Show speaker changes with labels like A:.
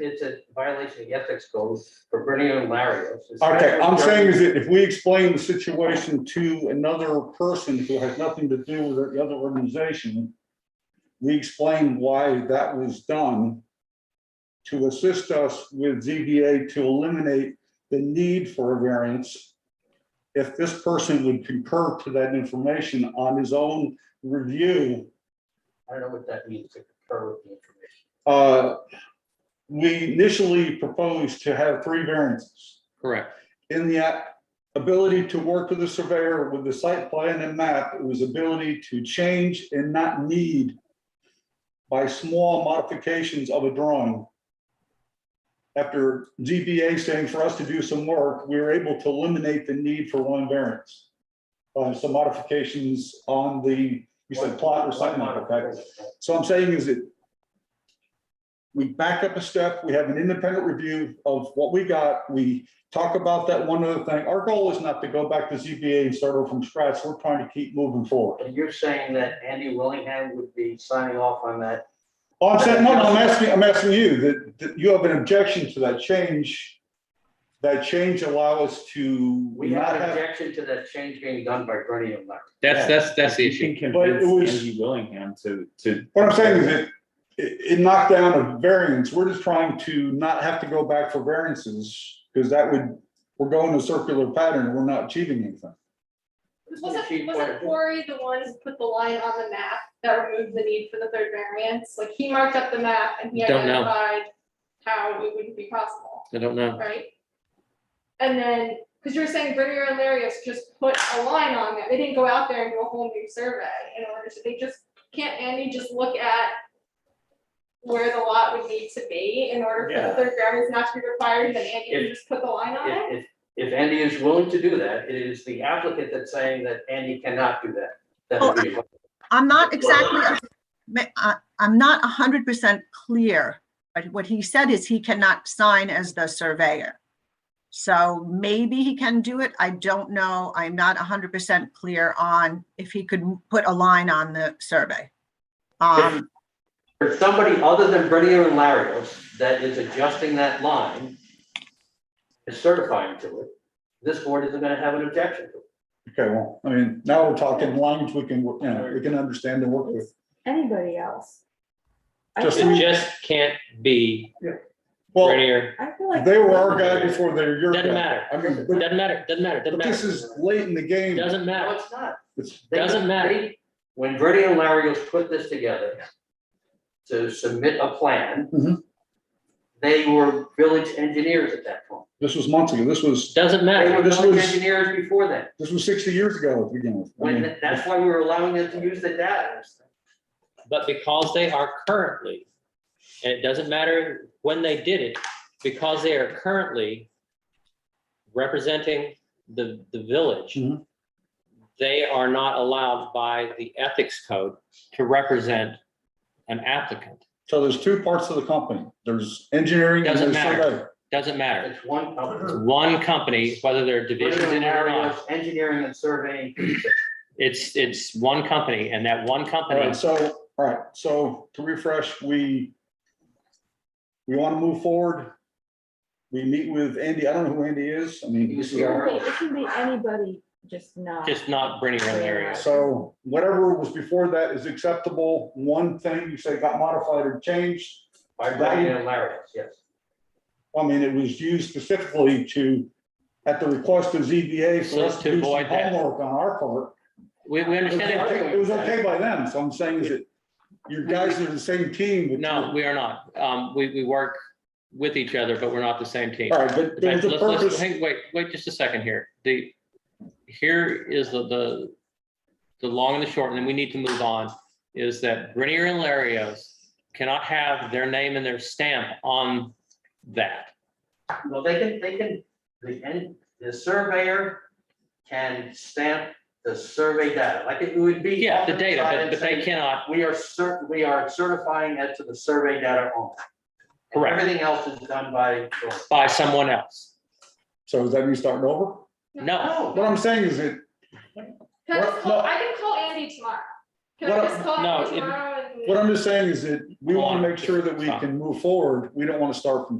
A: it's a violation of the ethics code for Bernio and Larios. It's not
B: Okay, I'm
A: for-
B: saying is that if we explain the situation to another person who has nothing to do with the other organization, we explain why that was done to assist us with ZBA to eliminate the need for a variance. If this person would concur to that information on his own review,
A: I don't know what that means to concur with the information.
B: uh, we initially proposed to have three variances.
C: Correct.
B: in the a- ability to work with the surveyor with the site plan and map, it was ability to change and not need by small modifications of a drawing. After GBA saying for us to do some work, we were able to eliminate the need for one variance. by some modifications on the, you said plot or something like that. So I'm saying is that we back up a step, we have an independent review of what we got, we talk about that one other thing. Our goal is not to go back to ZBA and start over from scratch, we're trying to keep moving forward.
A: And you're saying that Andy Willingham would be signing off on that?
B: Oh, I'm saying, no, no, I'm asking, I'm asking you, that, that you have an objection to that change. That change allow us to
A: We have
B: not
A: an
B: have,
A: objection to that change being done by Bernio and Larios.
C: That's, that's, that's the
D: If you
C: issue.
D: can
B: But it
D: convince
B: was-
D: Andy Willingham to, to.
B: what I'm saying is that it, it knocked down a variance, we're just trying to not have to go back for variances, because that would, we're going a circular pattern, we're not achieving anything.
A: She
E: Wasn't,
A: pointed-
E: wasn't Corey the one who put the line on the map that removed the need for the third variance? Like, he marked up the map and he
C: Don't know.
E: identified how it wouldn't be possible,
C: I don't know.
E: right? And then, because you were saying Bringer and Larios just put a line on it, they didn't go out there and do a whole new survey in order to, they just, can't Andy just look at where the lot would need to be in order for
A: Yeah.
E: the third variance not to be required, then Andy
A: If-
E: can just put the line on it?
A: If, if- if Andy is willing to do that, it is the applicant that's saying that Andy cannot do that. That would be,
F: I'm not exactly, ma- I- I'm not 100% clear, but what he said is he cannot sign as the surveyor. So maybe he can do it. I don't know. I'm not 100% clear on if he could put a line on the survey. Um,
A: for somebody other than Brenner and Larios that is adjusting that line, is certifying to it, this board isn't gonna have an objection to it.
B: Okay, well, I mean, now we're talking language we can, you know, we can understand and work with.
G: anybody else. I
B: Just-
G: feel-
C: It just can't be
B: Well,
C: Grenier.
G: I feel like.
B: they were our guy before they were your
C: Doesn't
B: guy.
C: matter.
B: I mean, but-
C: Doesn't matter. Doesn't matter. Doesn't
B: but this
C: matter.
B: is late in the game.
C: Doesn't
A: No,
C: matter.
A: it's not.
B: It's-
A: They-
C: Doesn't matter.
A: they- When Verdi and Larios put this together to submit a plan,
B: Mhm.
A: they were village engineers at that point.
B: This was months ago. This was,
C: Doesn't
A: They were
C: matter.
B: This
A: village
B: was-
A: engineers before that.
B: this was sixty years ago at the beginning. I
A: When,
B: mean,
A: th- that's why we were allowing them to use the data.
C: But because they are currently, and it doesn't matter when they did it, because they are currently representing the, the village,
B: Mhm.
C: they are not allowed by the ethics code to represent an applicant.
B: So there's two parts of the company. There's engineering and
C: Doesn't
B: there's
C: matter.
B: surveying.
C: Doesn't matter.
A: It's one
C: It's
A: company.
C: one company, whether there are divisions
A: Verdi
C: in
A: and
C: it or not.
A: Larios, Engineering and surveying.
C: It's, it's one company and that one
B: All
C: company,
B: right, so, all right, so to refresh, we we want to move forward. We meet with Andy. I don't know who Andy is. I mean,
A: He
B: this
A: was
B: is
A: here
B: our-
A: earlier.
G: It can be anybody, just not.
C: just not Brittany and Larry.
B: So whatever was before that is acceptable. One thing you say got modified or changed.
A: By Verdi and Larios, yes.
B: I mean, it was used specifically to, at the request of ZBA for us
C: So
B: to
C: to
B: do some
C: avoid that.
B: homework on our part.
C: We, we
B: It was
C: understand that.
B: okay- it was okay by them, so I'm saying is that your guys are the same team. but-
C: No, we are not. Um, we, we work with each other, but we're not the same team.
B: All right, but there was
C: Let's,
B: a
C: let's,
B: purpose,
C: hang, wait, wait just a second here. The, here is the, the, the long and the short, and then we need to move on, is that Brittany and Larios cannot have their name and their stamp on that.
A: Well, they can, they can, the, en- the surveyor can stamp the survey data, like it would be.
C: Yeah, the
A: on
C: data,
A: side
C: but,
A: and
C: but they
A: saying,
C: cannot,
A: We are cert, we are certifying it to the survey data only. And
C: Correct.
A: Everything else is done by.
C: by someone else.
B: so does that mean starting over?
C: No, Uh,
B: What I'm saying is that,
E: Can I
B: Well,
E: just call,
B: no.
E: I can call Andy tomorrow. Can I
B: What-
E: just call
C: no,
E: you
C: it-
E: tomorrow and?
B: What I'm just saying is that we want to make sure that we can move forward. We don't want to start from